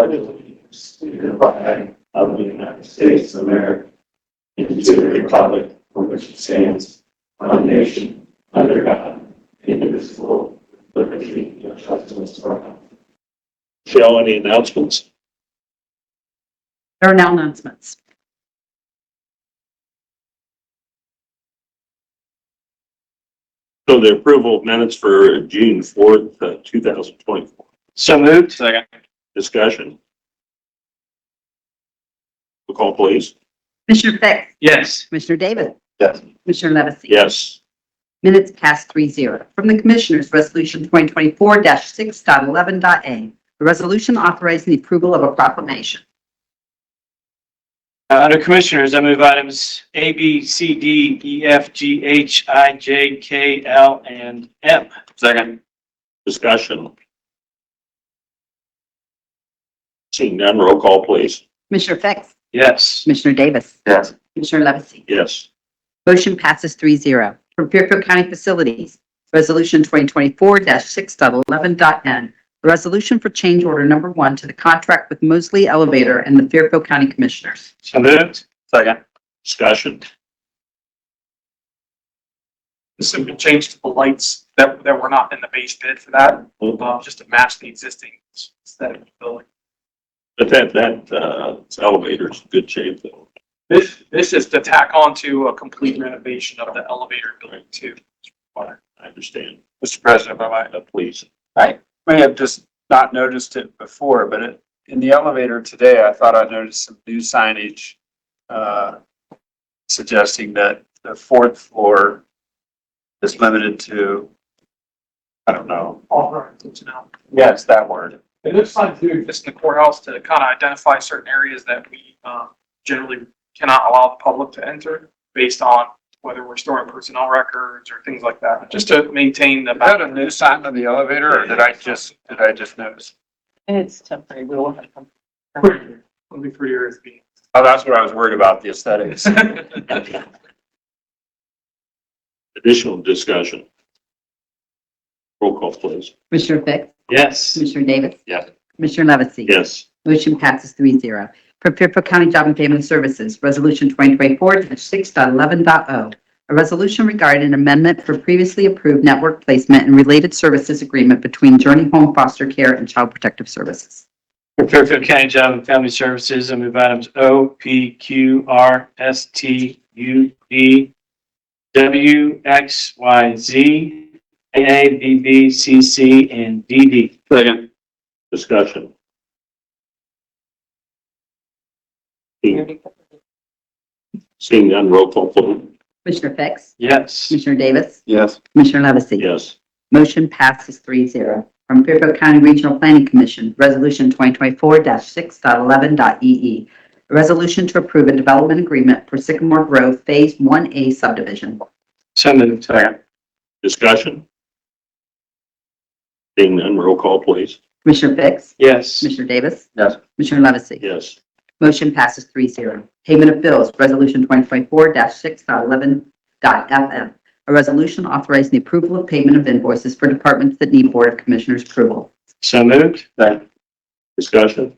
allegiance to the flag of the United States of America and to the republic for which it stands, one nation, under God, indivisible, with liberty and justice for all. Shall any announcements? There are now announcements. So the approval of minutes for June fourth, uh, two thousand twenty-four. So moved. Second. Discussion? Roll Call please. Commissioner Fix? Yes. Commissioner Davis? Yes. Commissioner Levesey? Yes. Minutes past three zero. From the Commissioners, Resolution 2024-6.11.a, a resolution authorizing the approval of a proclamation. Uh, Under Commissioners, I move items A, B, C, D, E, F, G, H, I, J, K, L, and M. Second. Discussion? Seeing none, roll call please. Commissioner Fix? Yes. Commissioner Davis? Yes. Commissioner Levesey? Yes. Motion passes three zero. From Fairfield County Facilities, Resolution 2024-6.11.n, a resolution for change order number one to the contract with Mosley Elevator and the Fairfield County Commissioners. So moved. Second. Discussion? This has been changed to the lights that, that were not in the base bid for that, um, just to match the existing aesthetic of the building. But that, that, uh, elevator's in good shape though. This, this is to tack on to a complete renovation of the elevator building too. I understand. Mr. President, if I Uh, Please. may have just not noticed it before, but it, in the elevator today, I thought I noticed some new signage uh, suggesting that the fourth floor is limited to, I don't know. All right, it's now. Yes, that word. It looks like doing this in the courthouse to kind of identify certain areas that we, um, generally cannot allow the public to enter based on whether we're storing personnel records or things like that, just to maintain the. Is that a new sign on the elevator, or did I just, did I just notice? It's temporary, we will have to come. It'll be pretty easy. Oh, that's what I was worried about, the aesthetics. Additional discussion? Roll call please. Commissioner Fix? Yes. Commissioner Davis? Yes. Commissioner Levesey? Yes. Motion passes three zero. From Fairfield County Job and Family Services, Resolution 2024-6.11.o, oh. a resolution regarding an amendment for previously approved network placement and related services agreement between Journey Home Foster Care and Child Protective Services. For Fairfield County Job and Family Services, I move items O, P, Q, R, S, T, U, V, W, X, Y, Z, A, B, B, C, C, and D, D. Second. Discussion? We already covered it. Seeing none, roll call please. Commissioner Fix? Yes. Commissioner Davis? Yes. Commissioner Levesey? Yes. Motion passes three zero. From Fairfield County Regional Planning Commission, Resolution 2024-6.11.e.e. E A resolution to approve a development agreement for Sycamore Grove Phase 1A subdivision. So moved. Second. Discussion? Seeing none, roll call please. Commissioner Fix? Yes. Commissioner Davis? Yes. Commissioner Levesey? Yes. Motion passes three zero. Payment of bills, Resolution 2024-6.11.f.m. A resolution authorizing the approval of payment of invoices for departments that need Board of Commissioners approval. So moved. Second. Discussion?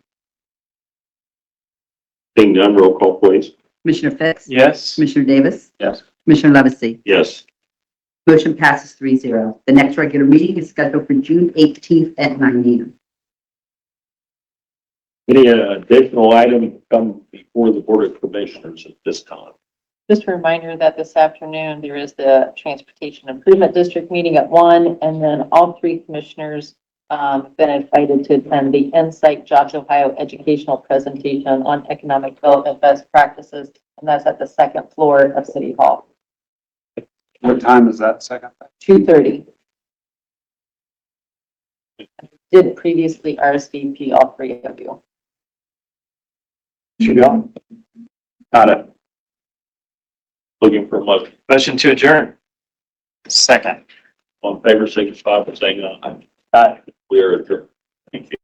Seeing none, roll call please. Commissioner Fix? Yes. Commissioner Davis? Yes. Commissioner Levesey? Yes. Motion passes three zero. The next regular meeting is scheduled for June eighteenth at nine AM. Any uh, additional item come before the Board of Commissioners at this time? Just a reminder that this afternoon, there is the Transportation Improvement District meeting at one, and then all three commissioners um, have been invited to attend the Insight Jobs Ohio educational presentation on economic development best practices, and that's at the second floor of City Hall, What time is that second? 2:30. Did previously RSVP all three of you. She gone? Got it. Looking for a motion. Motion to adjourn. Second. On favor, signify by saying aye. Aye. We are adjourned. Thank you.